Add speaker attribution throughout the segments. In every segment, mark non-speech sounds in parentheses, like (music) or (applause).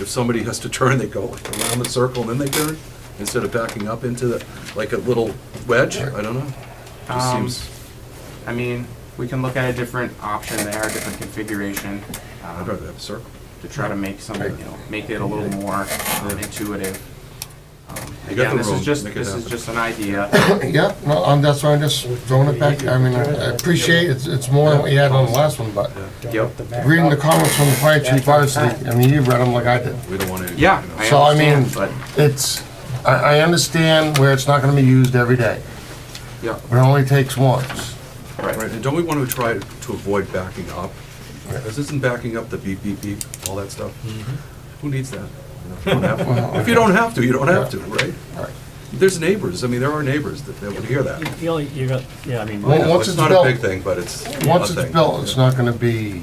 Speaker 1: If somebody has to turn, they go like around the circle and then they turn, instead of backing up into the, like a little wedge, I don't know. Just
Speaker 2: Um,
Speaker 1: seems,
Speaker 2: I mean, we can look at a different option there, a different configuration, um,
Speaker 1: I'd rather have a circle.
Speaker 2: to try to make some, you know, make it a little more um, intuitive. Um,
Speaker 1: You got
Speaker 2: Again,
Speaker 1: the
Speaker 2: this is
Speaker 1: room,
Speaker 2: just,
Speaker 1: make it
Speaker 2: this is
Speaker 1: happen.
Speaker 2: just an idea.
Speaker 1: (coughs)
Speaker 3: Yeah, no, um, that's why I'm just throwing it back, I mean, I appreciate, it's, it's more than what you had on the last one, but
Speaker 2: Yep.
Speaker 3: reading the comments from the fire chief, honestly, I mean, you read them like I did.
Speaker 1: We don't want any.
Speaker 2: Yeah,
Speaker 1: you know,
Speaker 2: I
Speaker 3: So, I mean-
Speaker 2: understand, but,
Speaker 3: It's, I, I understand where it's not gonna be used every day,
Speaker 2: yeah,
Speaker 3: but it only takes once.
Speaker 2: right.
Speaker 1: Right, and don't we want to try to avoid backing up? Because isn't backing up the beep, beep, beep, all that stuff?
Speaker 2: Mm-hmm.
Speaker 1: Who needs that? You don't have to. If you don't have to, you don't have to, right?
Speaker 3: Right.
Speaker 1: There's neighbors, I mean, there are neighbors that that would hear that.
Speaker 4: You only, you got, yeah, I mean,
Speaker 3: Well,
Speaker 1: Yeah,
Speaker 3: once
Speaker 1: It's
Speaker 3: it's
Speaker 1: not a big
Speaker 3: built-
Speaker 1: thing, but it's a
Speaker 3: Once it's
Speaker 1: thing.
Speaker 3: built, it's not gonna be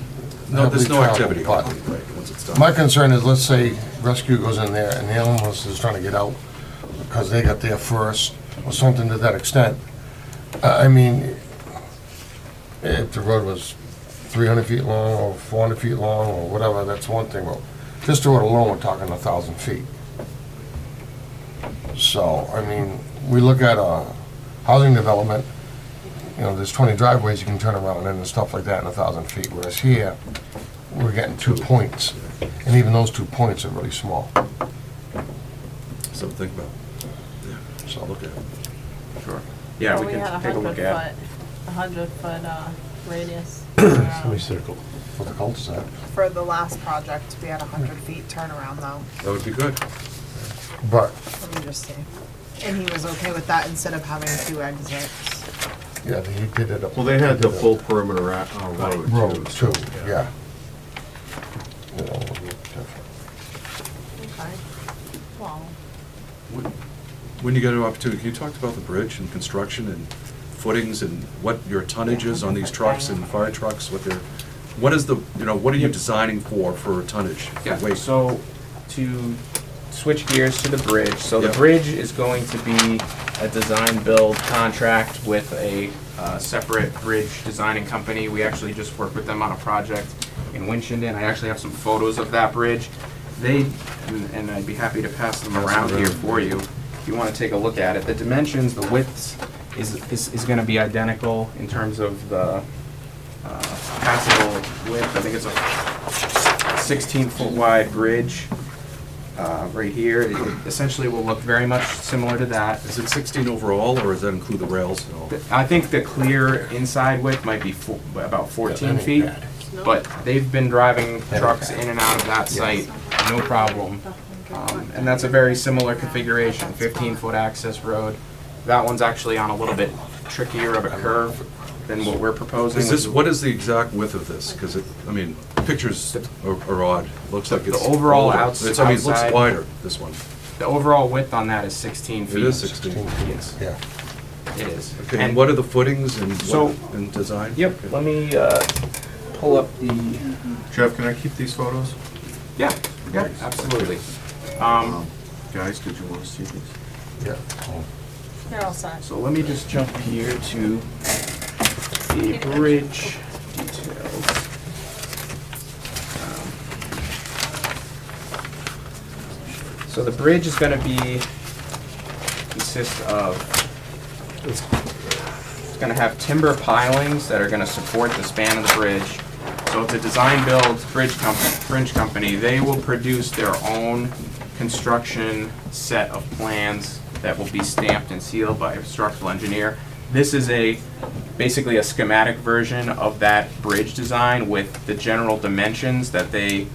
Speaker 1: No, there's
Speaker 3: heavily
Speaker 1: no activity,
Speaker 3: traveled,
Speaker 1: right,
Speaker 3: but
Speaker 1: once it's done.
Speaker 3: my concern is, let's say rescue goes in there and the animals is trying to get out because they got there first or something to that extent. I I mean, if the road was three hundred feet long or four hundred feet long or whatever, that's one thing, but just the road alone, we're talking a thousand feet. So, I mean, we look at a housing development, you know, there's twenty driveways you can turn around in and stuff like that in a thousand feet, whereas here, we're getting two points, and even those two points are really small,
Speaker 1: So think about,
Speaker 3: so.
Speaker 1: I'll look at it.
Speaker 2: Sure. Yeah, we
Speaker 5: had a
Speaker 2: can take a look
Speaker 5: hundred
Speaker 2: at.
Speaker 5: foot- A hundred foot uh,
Speaker 2: (coughs)
Speaker 5: radius turnaround.
Speaker 4: semicircle.
Speaker 3: For the cul-de-sac.
Speaker 6: For the last project, we had a hundred feet turnaround though,
Speaker 1: That would be good.
Speaker 3: But,
Speaker 6: let me just see. And he was okay with that instead of having two exits.
Speaker 3: yeah, he did it up.
Speaker 7: Well, they had the full perimeter at, uh,
Speaker 3: Road
Speaker 7: road too.
Speaker 3: too, yeah. You know, a little different.
Speaker 6: Okay. Well,
Speaker 1: When- When you get an opportunity, you talked about the bridge and construction and footings and what your tonnage is on these trucks and fire trucks, what they're, what is the, you know, what are you designing for, for tonnage? for
Speaker 2: Yeah,
Speaker 1: weight?
Speaker 2: so to switch gears to the bridge, so the
Speaker 1: Yeah.
Speaker 2: bridge is going to be a design-build contract with a uh, separate bridge designing company. We actually just worked with them on a project in Winchendon. I actually have some photos of that bridge. They, and- and I'd be happy to pass them around here for you, if you want to take a look at it. The dimensions, the widths is, is, is going to be identical in terms of the uh, passable width. I think it's a 16-foot wide bridge uh, right here. It essentially will look very much similar to that.
Speaker 1: Is it 16 overall, or does that include the rails and all?
Speaker 2: I think the clear inside width might be fo- about 14
Speaker 3: ain't
Speaker 2: feet,
Speaker 3: bad.
Speaker 2: but they've been driving
Speaker 3: ain't
Speaker 2: trucks
Speaker 3: bad.
Speaker 2: in and out of that site, no problem.
Speaker 5: Uh,
Speaker 2: Um, And that's a very similar configuration, 15-foot access road. That one's actually on a little bit trickier of a curve than what we're proposing.
Speaker 1: Is this,
Speaker 2: which
Speaker 1: what is the exact width of this? Because it, I mean, pictures are are odd. It Looks like
Speaker 2: The
Speaker 1: it's.
Speaker 2: overall
Speaker 1: older.
Speaker 2: outs-
Speaker 1: It's- I mean, it looks
Speaker 2: outside-
Speaker 1: wider, this one.
Speaker 2: The overall width on that is 16 feet.
Speaker 1: It is 16.
Speaker 2: Yes,
Speaker 3: Yeah.
Speaker 2: it is.
Speaker 1: Okay, and what are the footings and
Speaker 2: So-
Speaker 1: what, and design?
Speaker 2: Yep,
Speaker 1: Okay.
Speaker 2: let me uh, pull up the.
Speaker 7: Jeff, can I keep these photos?
Speaker 2: Yeah, yeah, absolutely. Um,
Speaker 7: Guys, did you want to see these?
Speaker 3: Yeah.
Speaker 5: They're all set.
Speaker 2: so let me just jump here to the bridge details. Um, So the bridge is gonna be, consist of, it's gonna have timber pilings that are gonna support the span of the bridge. So it's a design build bridge company, bridge company, they will produce their own construction set of plans that will be stamped and sealed by a structural engineer. This is a, basically a schematic version of that bridge design with the general dimensions that they,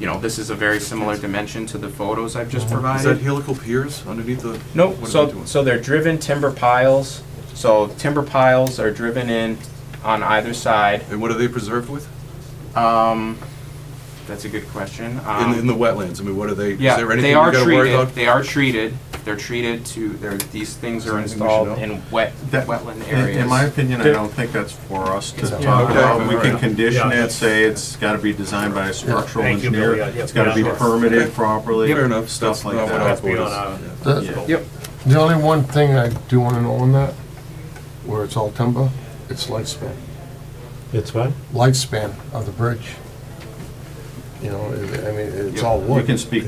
Speaker 2: you know, this is a very similar dimension to the photos I've just provided.
Speaker 1: Uh-huh. Is that helical piers underneath the?
Speaker 2: No,
Speaker 1: what are they
Speaker 2: so,
Speaker 1: doing?
Speaker 2: so they're driven timber piles, so timber piles are driven in on either side.
Speaker 1: And what are they preserved with?
Speaker 2: Um, that's a good question.
Speaker 1: In,
Speaker 2: Um,
Speaker 1: the- in the wetlands, I mean, what are they, is
Speaker 2: Yeah,
Speaker 1: there anything
Speaker 2: they
Speaker 1: you
Speaker 2: are
Speaker 1: gotta worry
Speaker 2: treated,
Speaker 1: about?
Speaker 2: they are treated, they're treated to, they're, these things are
Speaker 1: there anything we should
Speaker 2: installed
Speaker 1: know?
Speaker 2: in wet,
Speaker 7: That-
Speaker 2: wetland
Speaker 7: In- In my
Speaker 2: areas.
Speaker 7: opinion, I don't think that's for us to
Speaker 3: Yeah.
Speaker 7: talk
Speaker 1: Okay.
Speaker 7: about. We can
Speaker 1: Yeah.
Speaker 7: condition
Speaker 4: Yeah.
Speaker 7: it, say it's gotta be designed by a structural
Speaker 4: Thank you, Bill.
Speaker 7: engineer.
Speaker 4: Yeah, yeah,
Speaker 7: It's gotta be
Speaker 4: yeah.
Speaker 7: permitted properly.
Speaker 1: Fair enough,
Speaker 7: Stuff
Speaker 1: stuff
Speaker 7: like
Speaker 1: not what our
Speaker 7: that.
Speaker 4: That's
Speaker 1: board is.
Speaker 4: beyond our-
Speaker 1: yeah.
Speaker 3: The,
Speaker 2: Yep,
Speaker 3: the only one thing I do wanna know on that, where it's all timber, it's lifespan,
Speaker 4: It's what?
Speaker 3: lifespan of the bridge. you know, it- I mean, it's
Speaker 2: Yep.
Speaker 3: all
Speaker 7: You
Speaker 3: wood.
Speaker 7: can speak